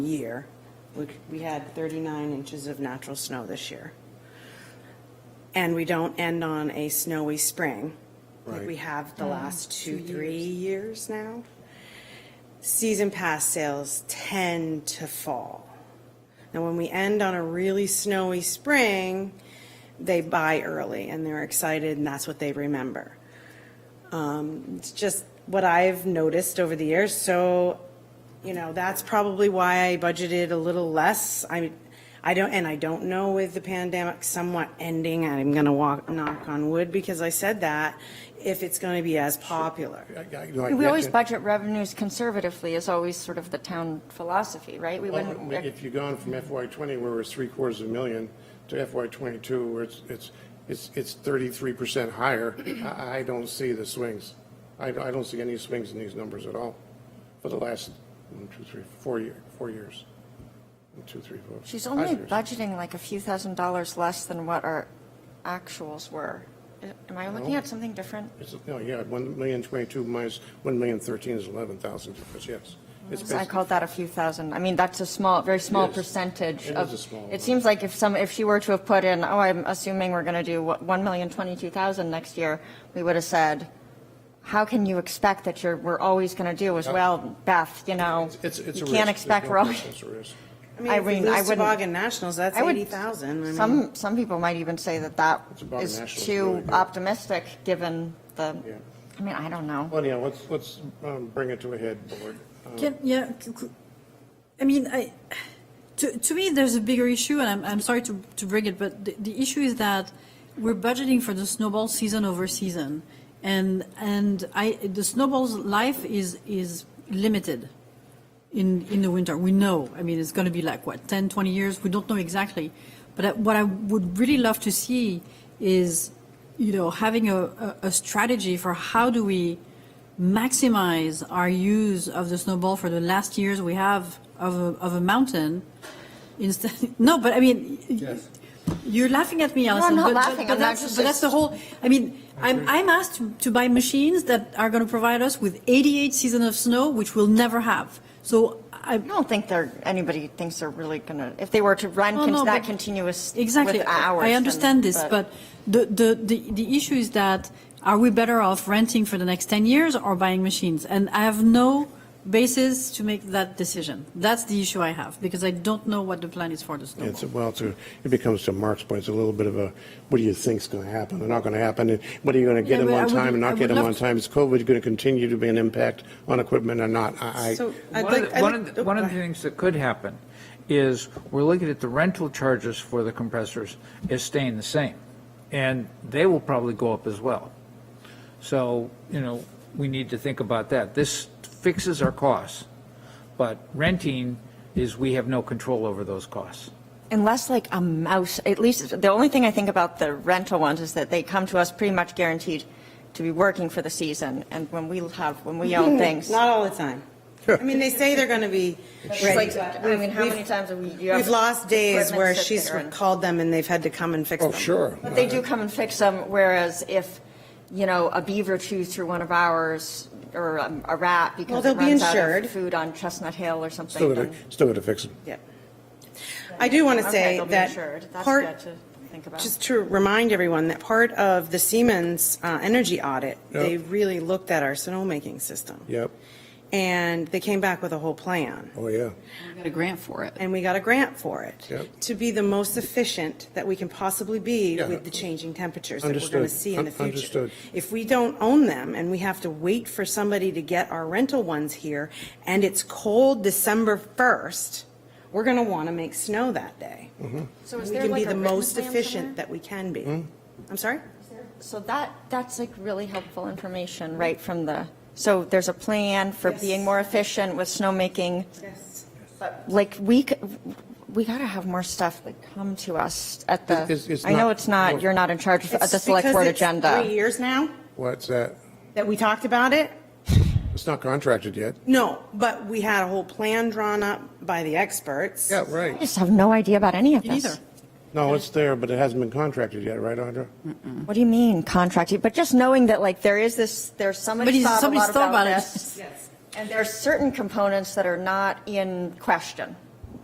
year. We- We had 39 inches of natural snow this year. And we don't end on a snowy spring, like we Right. have the last Mm. two, three years now. Season pass sales tend to fall. And when we end on a really snowy spring, they buy early and they're excited and that's what they remember. Um, It's just what I've noticed over the years, so, you know, that's probably why I budgeted a little less. I, I don't, and I don't know with the pandemic somewhat ending, I'm gonna walk, knock on wood because I said that, if it's gonna be as popular. We We always budget revenues conservatively is always sort of the town philosophy, right? We wouldn't, If you're going from FY twenty, where it's three quarters of a million, to FY twenty-two, where it's, it's, it's, it's thirty-three percent higher, I, I don't see the swings. I, I don't see any swings in these numbers at all for the last one, two, three, four year, four years. One, two, three, four. she's five only years. budgeting like a few thousand dollars less than what our actuals were. Am I looking at something different? It's- No, yeah, one million twenty-two minus one million thirteen is eleven thousand difference, yes. It's I basi- called that a few thousand. I mean, that's a small, very small It is. percentage It of. is a small It amount. seems like if some, if she were to have put in, oh, I'm assuming we're going to do what, 1,022,000 next year, we would have said, how can you expect that you're, we're always going to do as well, Beth, you know? It's, it's a risk. You can't expect There's we're no always. question It's a risk. I mean, if mean, we I lose wouldn't- Toboggan Nationals, that's I would- 80,000. I mean- Some, some people might even say that that It's about is national, it's really too good. optimistic, given the, Yeah. I mean, I don't know. Well, yeah, let's, let's um, bring it to a head, board. Can, yeah, c- c- I mean, I, to, to me, there's a bigger issue, and I'm, I'm sorry to, to bring it, but the, the issue is that we're budgeting for the snowball season over season. And, and I, the snowball's life is, is limited in, in the winter. We know, I mean, it's going to be like, what, 10, 20 years? We don't know exactly. But I- what I would really love to see is, you know, having a, a, a strategy for how do we maximize our use of the snowball for the last years we have of a, of a mountain instead. No, but I mean, y- you're laughing at me, Alison. not but- but- laughing. But I'm that's, just- but that's the whole, I mean, I'm, I'm asked to- to buy machines that are going to provide us with 88 seasons of snow, which we'll never have. So I, I don't think they're, anybody thinks they're really gonna, if they were to run No, con- no, that but- continuous Exactly. with hours. I then- understand this, but the, the, the, the issue is that are we better off renting for the next 10 years or buying machines? And I have no basis to make that decision. That's the issue I have because I don't know what the plan is for the snowball. It's, well, it's a- it becomes to Mark's point, it's a little bit of a, what do you think's going to happen? They're not going to happen, and what are you going to get Yeah, them but I on would- time and I not get would them love on to- time? Is COVID going to continue to be an impact on equipment or not? I, So I'd One of like, the- I'd One of like- the- one of the things that could happen is, we're looking at the rental charges for the compressors is staying the same, and they will probably go up as well. So, you know, we need to think about that. This fixes our costs, but renting is, we have no control over those costs. Unless like a mouse, at least, the only thing I think about the rental ones is that they come to us pretty much guaranteed to be working for the season, and when we have, when we own things. Not all the time. I mean, they say they're going to be ready. It's but like, I mean, how we've- many times have we? you have We've lost days equipment where sit she's there and- called them and they've had to come and fix I, oh, them. sure. But they do come and fix them, whereas if, you know, a beaver chews through one of ours, or um, a rat Well, because they'll it be runs out insured. of food on Chestnut Hill or Still got something, to, then, still got to fix them. Yep. I do want to okay, say they'll be that insured. That's part- good to think about. Just to remind everyone that part of the Siemens uh, energy audit, they Yep. really looked at our snowmaking system. Yep. And they came back with a whole plan. Oh, yeah. got a grant for it. And we got a grant for it. Yep. To be the most efficient that we can possibly be Yeah. with the changing temperatures that we're going to Understood. see in the Un- future. understood. If we don't own them and we have to wait for somebody to get our rental ones here and it's cold December 1st, we're going to want to make snow that day. Mm-hmm. So We is there can be like a the written most plan efficient somewhere? that we can be. Mm-hmm. I'm sorry? So that, that's like really helpful information, right from the, so there's a plan for being more efficient with snowmaking. Yes. Like, we, c- we gotta have more stuff that come to us at It's- the, it's I know not- it's not, you're not in charge of the select board agenda. Three years now What's that? that we talked about it. It's not contracted yet. No, but we had a whole plan drawn up by the experts. Yeah, I right. just have no idea about any of this. neither. No, it's there, but it hasn't been contracted yet, right, Audra? What do you mean contract? But just knowing that like there is this, there's somebody Somebody's- thought a somebody's lot thought about about it. this. And there's certain components that are not in question.